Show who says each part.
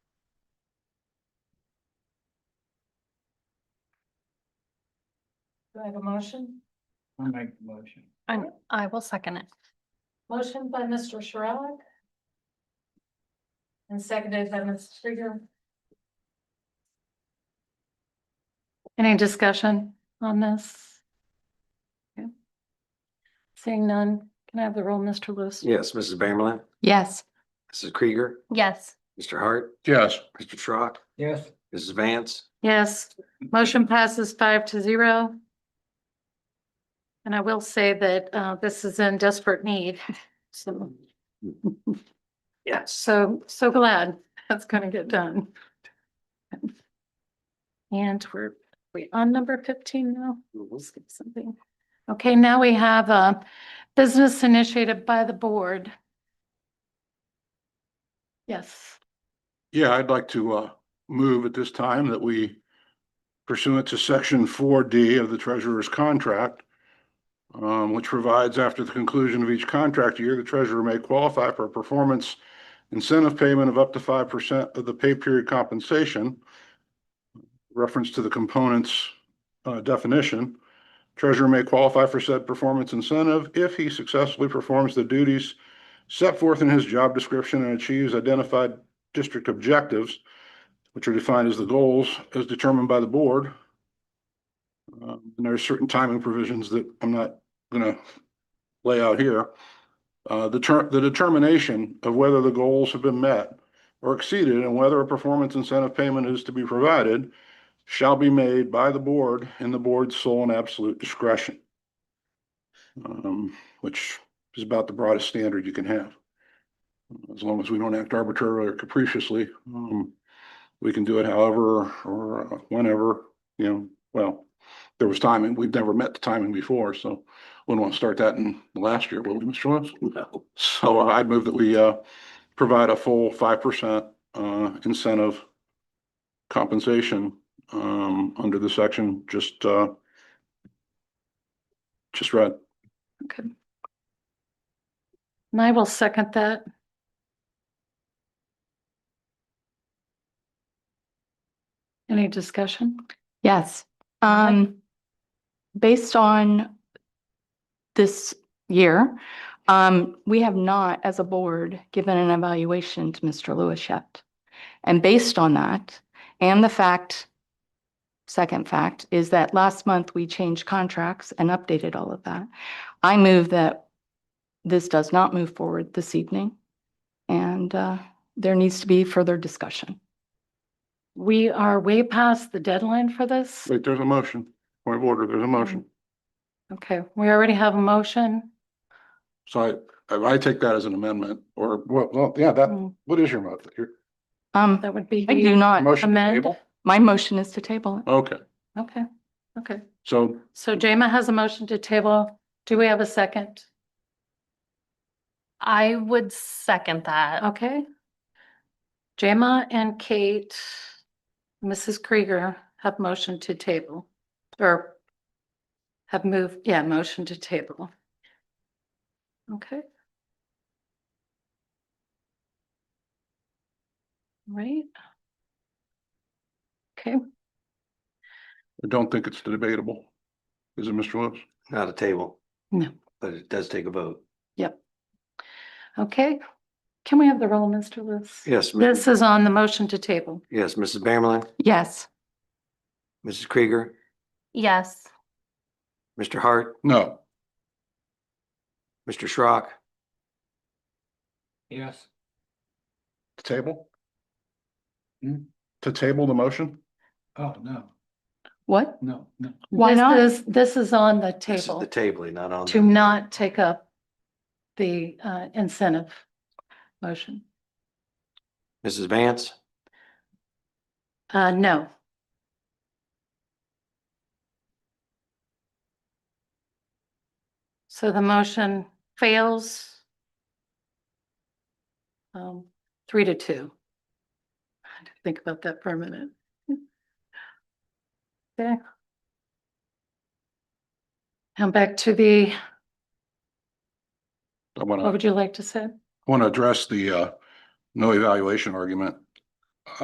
Speaker 1: Do I have a motion?
Speaker 2: I make the motion.
Speaker 3: I, I will second it.
Speaker 1: Motion by Mr. Sherrill. And seconded by Ms. Krieger.
Speaker 3: Any discussion on this? Okay. Seeing none, can I have the roll, Mr. Lewis?
Speaker 4: Yes, Mrs. Bamerlin,
Speaker 3: Yes.
Speaker 4: Mrs. Krieger,
Speaker 3: Yes.
Speaker 4: Mr. Hart,
Speaker 5: yes,
Speaker 4: Mr. Schrock,
Speaker 2: Yes,
Speaker 4: Mrs. Vance.
Speaker 3: Yes, motion passes five to zero. And I will say that uh, this is in desperate need, so.
Speaker 4: Yes.
Speaker 3: So, so glad that's gonna get done. And we're, we on number fifteen now? We'll skip something. Okay, now we have a business initiated by the board. Yes,
Speaker 5: yeah, I'd like to uh move at this time that we pursuant to section four D of the treasurer's contract. Um, which provides after the conclusion of each contract year, the treasurer may qualify for a performance incentive payment of up to five percent of the pay period compensation. Reference to the components uh definition. Treasurer may qualify for said performance incentive if he successfully performs the duties set forth in his job description and achieves identified district objectives, which are defined as the goals as determined by the board. Um, And there are certain timing provisions that I'm not gonna lay out here. Uh, the ter- the determination of whether the goals have been met or exceeded and whether a performance incentive payment is to be provided shall be made by the board in the board's sole and absolute discretion. Um, which is about the broadest standard you can have as long as we don't act arbitrarily or capriciously, um, we can do it however or uh, whenever, you know, well, there was timing, we've never met the timing before, so wouldn't want to start that in the last year, will we, Mr. Lewis?
Speaker 4: No.
Speaker 5: So I'd move that we, uh, provide a full five percent, uh, incentive compensation, um, under the section, just, uh, just read.
Speaker 3: okay. And I will second that. Any discussion?
Speaker 6: Yes. Um, based on this year, um, we have not, as a board, given an evaluation to Mr. Lewis yet. And based on that, and the fact, second fact, is that last month we changed contracts and updated all of that. I move that this does not move forward this evening. And, uh, there needs to be further discussion.
Speaker 3: We are way past the deadline for this.
Speaker 5: Wait, there's a motion, point of order, there's a motion.
Speaker 3: Okay, we already have a motion.
Speaker 5: So I, I take that as an amendment or, well, well, yeah, that,
Speaker 3: Mm,
Speaker 5: what is your motion? Your
Speaker 6: Um,
Speaker 3: That would be.
Speaker 6: I do not.
Speaker 5: motion to
Speaker 3: Uh, amend?
Speaker 5: table?
Speaker 6: My motion is to table it.
Speaker 5: Okay,
Speaker 3: Okay, okay.
Speaker 5: so
Speaker 3: So Jema has a motion to table. Do we have a second?
Speaker 7: I would second that.
Speaker 3: Okay. Jema and Kate, Mrs. Krieger have motion to table or have moved, yeah, motion to table. Okay. Right. Okay.
Speaker 5: I don't think it's debatable. Is it Mr. Lewis?
Speaker 4: Not a table.
Speaker 3: No.
Speaker 4: But it does take a vote.
Speaker 3: Okay, can we have the roll, Mr. Lewis?
Speaker 4: Yes, mi-
Speaker 3: This is on the motion to table.
Speaker 4: yes, Mrs. Bamerlin,
Speaker 6: Yes.
Speaker 4: Mrs. Krieger,
Speaker 7: Yes.
Speaker 4: Mr. Hart,
Speaker 5: No,
Speaker 4: Mr. Schrock,
Speaker 2: yes,
Speaker 5: to table?
Speaker 2: Hmm?
Speaker 5: To table the motion?
Speaker 2: oh, no,
Speaker 6: What?
Speaker 2: no, no,
Speaker 6: Why
Speaker 3: This
Speaker 6: not?
Speaker 3: is- This is on the
Speaker 4: this is
Speaker 3: table
Speaker 4: the tabling, not on.
Speaker 3: to not take up the uh, incentive motion.
Speaker 4: Mrs. Vance,
Speaker 3: Uh, no. So the motion fails. Um, three to two. I had to Think about that for a minute. Okay. And back to the,
Speaker 5: I want
Speaker 3: what
Speaker 5: to,
Speaker 3: would you like to say?
Speaker 5: want to address the, uh, no evaluation argument